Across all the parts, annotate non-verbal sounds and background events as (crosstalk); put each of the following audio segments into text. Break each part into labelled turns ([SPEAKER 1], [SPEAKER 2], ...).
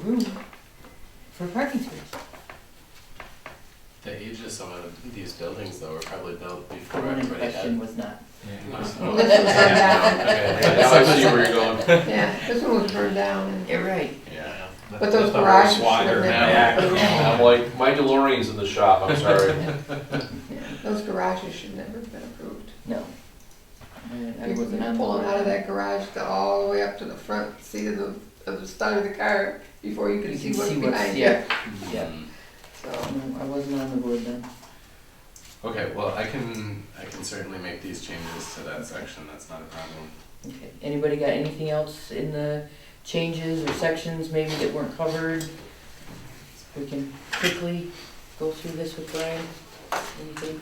[SPEAKER 1] room for parking space.
[SPEAKER 2] The ages of uh, these buildings though were probably built
[SPEAKER 1] The
[SPEAKER 2] before
[SPEAKER 1] one in
[SPEAKER 2] everybody
[SPEAKER 1] question
[SPEAKER 2] had.
[SPEAKER 1] was not.
[SPEAKER 2] Oh, (laughs) okay. That's how I see where you're going.
[SPEAKER 3] Yeah, this one was burned down and.
[SPEAKER 1] You're right.
[SPEAKER 2] Yeah.
[SPEAKER 3] But those garages should've never,
[SPEAKER 4] I'm like, my DeLorean's in the shop,
[SPEAKER 2] (laughs)
[SPEAKER 4] I'm sorry.
[SPEAKER 3] yeah, those garages should never have been approved.
[SPEAKER 1] No. I- I
[SPEAKER 3] People
[SPEAKER 1] wasn't on
[SPEAKER 3] pulling
[SPEAKER 1] board.
[SPEAKER 3] out of that garage to all the way up to the front seat of the, of the side of the car before you
[SPEAKER 1] You
[SPEAKER 3] could see
[SPEAKER 1] can
[SPEAKER 3] what's
[SPEAKER 1] see what's-
[SPEAKER 3] behind
[SPEAKER 1] yeah.
[SPEAKER 3] you,
[SPEAKER 1] Yeah.
[SPEAKER 4] Mm.
[SPEAKER 3] so.
[SPEAKER 1] No, I wasn't on the board then.
[SPEAKER 2] Okay, well, I can, I can certainly make these changes to that section, that's not a problem.
[SPEAKER 1] Okay. Anybody got anything else in the changes or sections maybe that weren't covered? We can quickly go through this with Brian. Anything?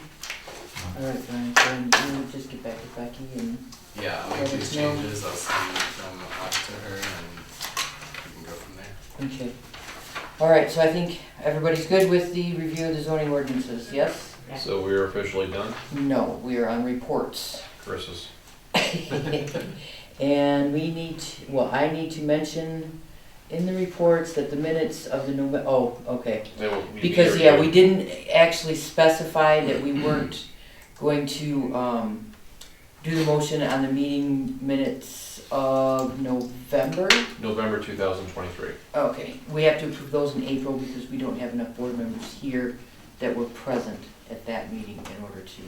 [SPEAKER 1] All right, Brian, Brian, you just get back to Becky and
[SPEAKER 2] Yeah, I'll make
[SPEAKER 1] Let us
[SPEAKER 2] these
[SPEAKER 1] know.
[SPEAKER 2] changes, I'll send them off to her and we can go from there.
[SPEAKER 1] Okay. All right, so I think everybody's good with the review of the zoning ordinances, yes?
[SPEAKER 4] (laughs) So we are officially done,
[SPEAKER 1] No, we are on reports. (laughs)
[SPEAKER 4] Chris's.
[SPEAKER 1] And we need, to- well, I need to mention in the reports that the minutes of the November, oh, okay. Because, yeah, we didn't actually specify that we weren't going to, um, do the motion on the meeting minutes of November.
[SPEAKER 4] November two thousand twenty-three.
[SPEAKER 1] Okay, we have to approve those in April because we don't have enough board members here that were present at that meeting in order to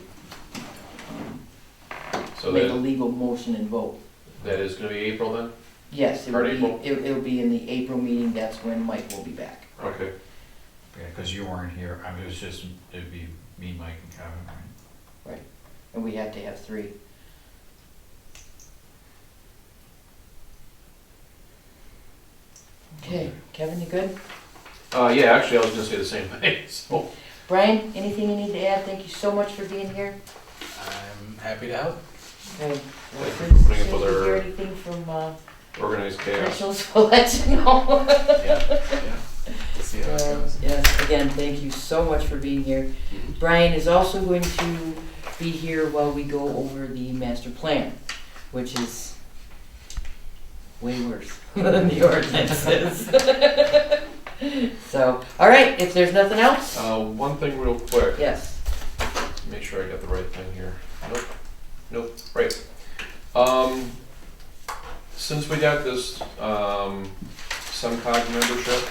[SPEAKER 1] um,
[SPEAKER 4] So
[SPEAKER 1] make a
[SPEAKER 4] that,
[SPEAKER 1] legal motion and vote.
[SPEAKER 4] that is gonna be April then?
[SPEAKER 1] Yes, it will
[SPEAKER 4] Part
[SPEAKER 1] be,
[SPEAKER 4] April?
[SPEAKER 1] it- it'll be in the April meeting, that's when Mike will be back.
[SPEAKER 4] Okay.
[SPEAKER 5] Yeah, because you weren't here, I mean, it was just, it'd be me, Mike, and Kevin, right?
[SPEAKER 1] And we have to have three. Okay, Kevin, you good?
[SPEAKER 4] Uh, yeah, actually, I was gonna say the same thing, (laughs) so.
[SPEAKER 1] Brian, anything you need to add? Thank you so much for being here.
[SPEAKER 2] I'm happy to help.
[SPEAKER 1] Okay. well,
[SPEAKER 4] Thank you for
[SPEAKER 1] since- since
[SPEAKER 4] putting up with
[SPEAKER 1] we hear
[SPEAKER 4] our-
[SPEAKER 1] Anything from, uh,
[SPEAKER 4] Organized
[SPEAKER 1] (laughs)
[SPEAKER 4] chaos.
[SPEAKER 1] officials will let you know.
[SPEAKER 2] Yeah, we'll see how it goes.
[SPEAKER 1] Yes, again, thank you so much for being here.
[SPEAKER 2] Mhm.
[SPEAKER 1] Brian is also going to be here while we go over the master plan, which is way worse (laughs) than the ordinances. (laughs) So, all right, if there's nothing else,
[SPEAKER 4] Uh, one thing real quick,
[SPEAKER 1] yes.
[SPEAKER 4] make sure I got the right thing here. Nope, nope, right. Um, since we got this, um, SEMCOG membership,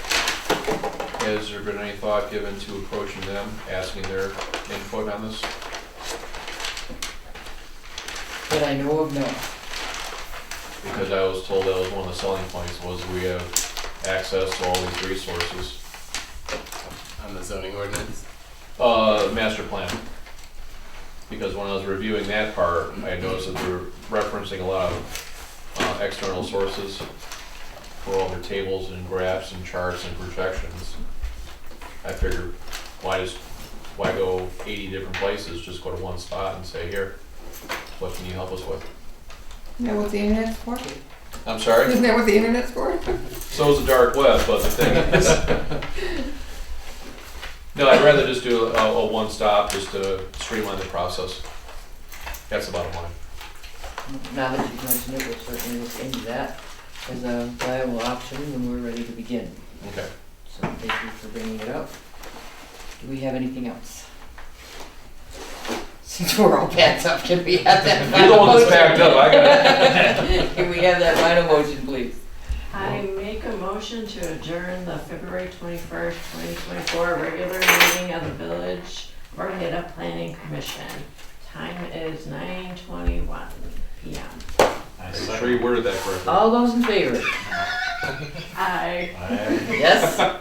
[SPEAKER 4] has there been any thought given to approaching them, asking their input on this?
[SPEAKER 1] That I know of, no.
[SPEAKER 4] Because I was told that was one of the selling points, was we have access to all these resources.
[SPEAKER 2] On the zoning ordinance,
[SPEAKER 4] Uh, master plan. Because when I was reviewing that part, I noticed that they were referencing a lot of uh, external sources for all their tables and graphs and charts and projections. I figured, why just, why go eighty different places, just go to one spot and say, here, what can you help us with?
[SPEAKER 3] Isn't that what the internet's (laughs) for?
[SPEAKER 4] I'm sorry,
[SPEAKER 3] Isn't that what the internet's for?
[SPEAKER 4] so's the dark web, but the thing is. No, I'd rather just do a, a one-stop, just to streamline the process. That's the bottom line.
[SPEAKER 1] Now that you've mentioned it, we'll certainly look into that as a viable option when we're ready to begin.
[SPEAKER 4] Okay.
[SPEAKER 1] So thank you for bringing it up. Do we have anything else? (laughs) Since we're all packed up, can we have that
[SPEAKER 4] You're the
[SPEAKER 1] final
[SPEAKER 4] one
[SPEAKER 1] motion?
[SPEAKER 4] that's backed up. I
[SPEAKER 1] (laughs)
[SPEAKER 4] got
[SPEAKER 1] Can we have that final motion, please?
[SPEAKER 6] I make a motion to adjourn the February twenty-first, twenty twenty-four regular meeting of the Village of Arvada Planning Commission. Time is nine twenty-one P M.
[SPEAKER 5] I
[SPEAKER 4] it. Sure you worded that correctly.
[SPEAKER 1] All those in favor?
[SPEAKER 6] I
[SPEAKER 5] I-
[SPEAKER 4] (laughs)
[SPEAKER 1] Yes? Uh,